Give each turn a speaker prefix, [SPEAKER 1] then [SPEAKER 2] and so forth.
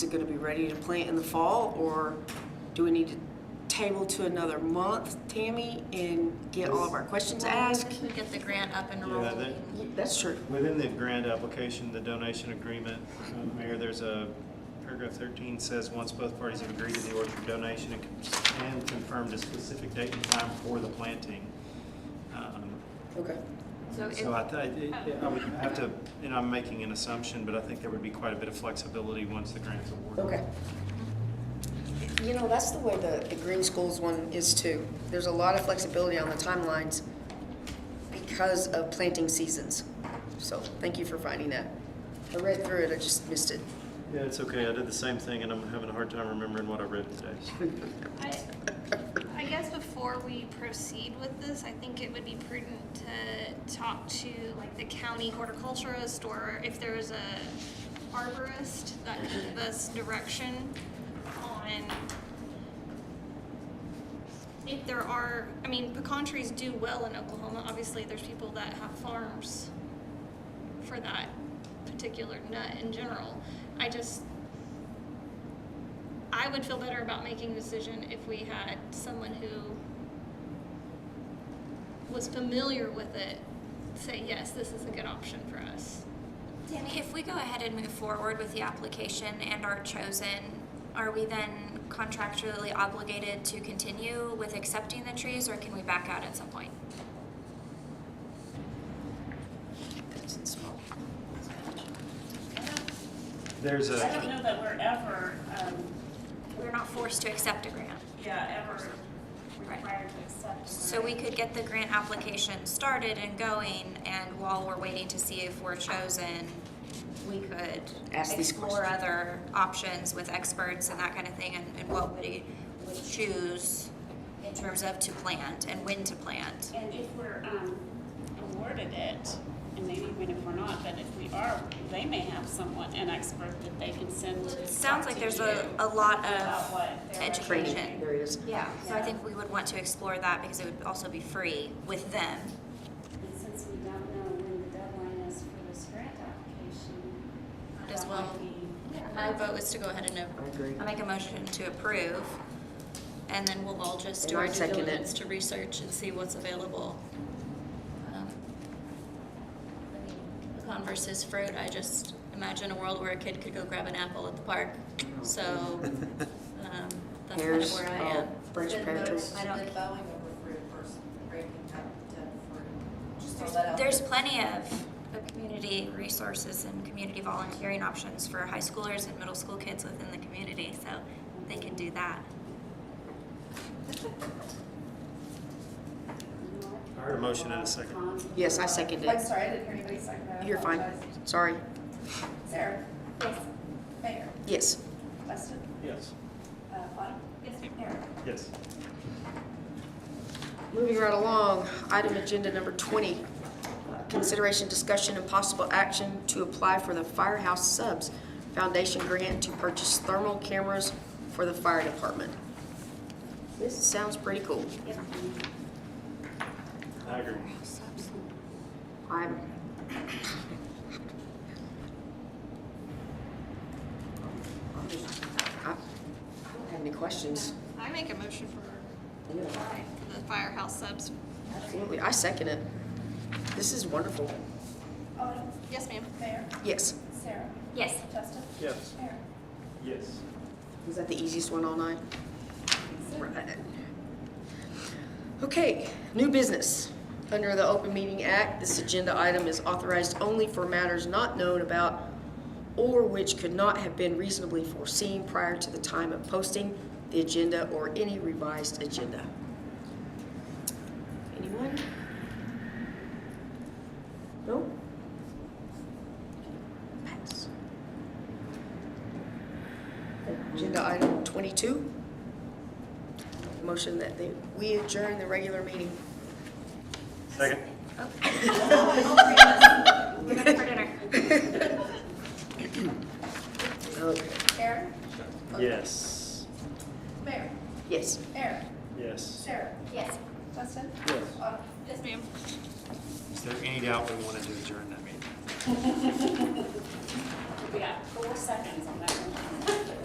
[SPEAKER 1] Is it gonna be ready to plant in the fall, or do we need to table to another month, Tammy, and get all of our questions asked?
[SPEAKER 2] We get the grant up and
[SPEAKER 3] Yeah,
[SPEAKER 2] rolling.
[SPEAKER 3] that,
[SPEAKER 1] That's true.
[SPEAKER 3] within the grant application, the donation agreement, uh, Mayor, there's a, paragraph thirteen says, once both parties have agreed to the orchard donation and con- and confirmed a specific date and time for the planting. Um,
[SPEAKER 1] Okay.
[SPEAKER 2] So if,
[SPEAKER 3] So I, thi- I I would have to, and I'm making an assumption, but I think there would be quite a bit of flexibility once the grant's awarded.
[SPEAKER 1] Okay. You know, that's the way the, the Green Schools one is too. There's a lot of flexibility on the timelines because of planting seasons. So thank you for finding that. I read through it, I just missed it.
[SPEAKER 3] Yeah, it's okay, I did the same thing, and I'm having a hard time remembering what I read today.
[SPEAKER 4] I I guess before we proceed with this, I think it would be prudent to talk to like the county horticulturist or if there's a arborist that can give us direction on if there are, I mean, pecan trees do well in Oklahoma. Obviously, there's people that have farms for that particular nut in general. I just, I would feel better about making a decision if we had someone who was familiar with it say, yes, this is a good option for us.
[SPEAKER 2] Tammy, if we go ahead and move forward with the application and are chosen, are we then contractually obligated to continue with accepting the trees or can we back out at some point?
[SPEAKER 1] That's in small.
[SPEAKER 3] There's
[SPEAKER 5] I
[SPEAKER 3] a,
[SPEAKER 5] don't know that we're ever, um,
[SPEAKER 2] We're not forced to accept a grant.
[SPEAKER 5] yeah, ever
[SPEAKER 2] Right.
[SPEAKER 5] required to accept.
[SPEAKER 2] So we could get the grant application started and going and while we're waiting to see if we're chosen, we could
[SPEAKER 1] Ask these
[SPEAKER 2] explore
[SPEAKER 1] questions.
[SPEAKER 2] other options with experts and that kind of thing and, and what would he would choose in terms of to plant and when to plant.
[SPEAKER 5] And if we're, um, awarded it, and maybe even if we're not, but if we are, they may have someone, an expert that they can send to.
[SPEAKER 2] Sounds
[SPEAKER 5] talk
[SPEAKER 2] like
[SPEAKER 5] to
[SPEAKER 2] there's
[SPEAKER 5] you
[SPEAKER 2] a, a lot
[SPEAKER 5] About
[SPEAKER 2] of
[SPEAKER 5] what they're.
[SPEAKER 2] education.
[SPEAKER 1] There it is.
[SPEAKER 2] Yeah, so I think we would want to explore that because it would also be free with them.
[SPEAKER 6] And since we don't know when the deadline is for this grant application.
[SPEAKER 2] As
[SPEAKER 6] that
[SPEAKER 2] well.
[SPEAKER 6] might be-
[SPEAKER 2] My vote is to go ahead and,
[SPEAKER 1] I agree.
[SPEAKER 2] I make a motion to approve. And then we'll all just do
[SPEAKER 1] And
[SPEAKER 2] our
[SPEAKER 1] I'll
[SPEAKER 2] due
[SPEAKER 1] second it.
[SPEAKER 2] diligence to research and see what's available. Um, I mean, Pecan versus fruit, I just imagine a world where a kid could go grab an apple at the park.
[SPEAKER 1] Oh.
[SPEAKER 2] So, um, that's kind of
[SPEAKER 1] Pears,
[SPEAKER 2] where I
[SPEAKER 1] oh,
[SPEAKER 2] am.
[SPEAKER 1] Branch pear trees.
[SPEAKER 2] I don't-
[SPEAKER 7] Did Boeing over fruit versus breaking up to fruit? Just throw that out there.
[SPEAKER 2] There's plenty of of community resources and community volunteering options for high schoolers and middle school kids within the community, so they can do that.
[SPEAKER 3] I heard a motion and a second.
[SPEAKER 1] Yes, I seconded
[SPEAKER 8] I'm
[SPEAKER 1] it.
[SPEAKER 8] sorry, I didn't hear anybody second that. I
[SPEAKER 1] You're fine.
[SPEAKER 8] apologize.
[SPEAKER 1] Sorry.
[SPEAKER 8] Sarah? Yes. Mayor?
[SPEAKER 1] Yes.
[SPEAKER 8] Weston?
[SPEAKER 3] Yes.
[SPEAKER 8] Uh, Autumn? Yes, Aaron?
[SPEAKER 3] Yes.
[SPEAKER 1] Moving right along, item agenda number 20, uh, consideration, discussion, and possible action to apply for the Firehouse Subs Foundation grant to purchase thermal cameras for the fire department. This sounds pretty cool.
[SPEAKER 3] I agree.
[SPEAKER 1] I'm, I I don't have any questions.
[SPEAKER 4] I make a motion for the firehouse subs.
[SPEAKER 1] Absolutely, I second it. This is wonderful.
[SPEAKER 8] Autumn?
[SPEAKER 4] Yes, ma'am.
[SPEAKER 8] Mayor?
[SPEAKER 1] Yes.
[SPEAKER 8] Sarah?
[SPEAKER 2] Yes.
[SPEAKER 8] Justin?
[SPEAKER 3] Yes.
[SPEAKER 8] Aaron?
[SPEAKER 3] Yes.
[SPEAKER 1] Is that the easiest one all night? Right. Okay, new business. Under the Open Meeting Act, this agenda item is authorized only for matters not known about or which could not have been reasonably foreseen prior to the time of posting the agenda or any revised agenda. Anyone? No? Pass. Agenda item 22. Motion that they, we adjourn the regular meeting.
[SPEAKER 3] Second.
[SPEAKER 2] We're back for dinner.
[SPEAKER 1] Okay.
[SPEAKER 8] Aaron?
[SPEAKER 3] Yes.
[SPEAKER 8] Mayor?
[SPEAKER 1] Yes.
[SPEAKER 8] Aaron?
[SPEAKER 3] Yes.
[SPEAKER 8] Sarah?
[SPEAKER 2] Yes.
[SPEAKER 8] Justin?
[SPEAKER 3] Yes.
[SPEAKER 8] Autumn? Yes, ma'am.
[SPEAKER 3] Is there any doubt we wanted to adjourn that meeting?
[SPEAKER 5] We got four seconds on that one.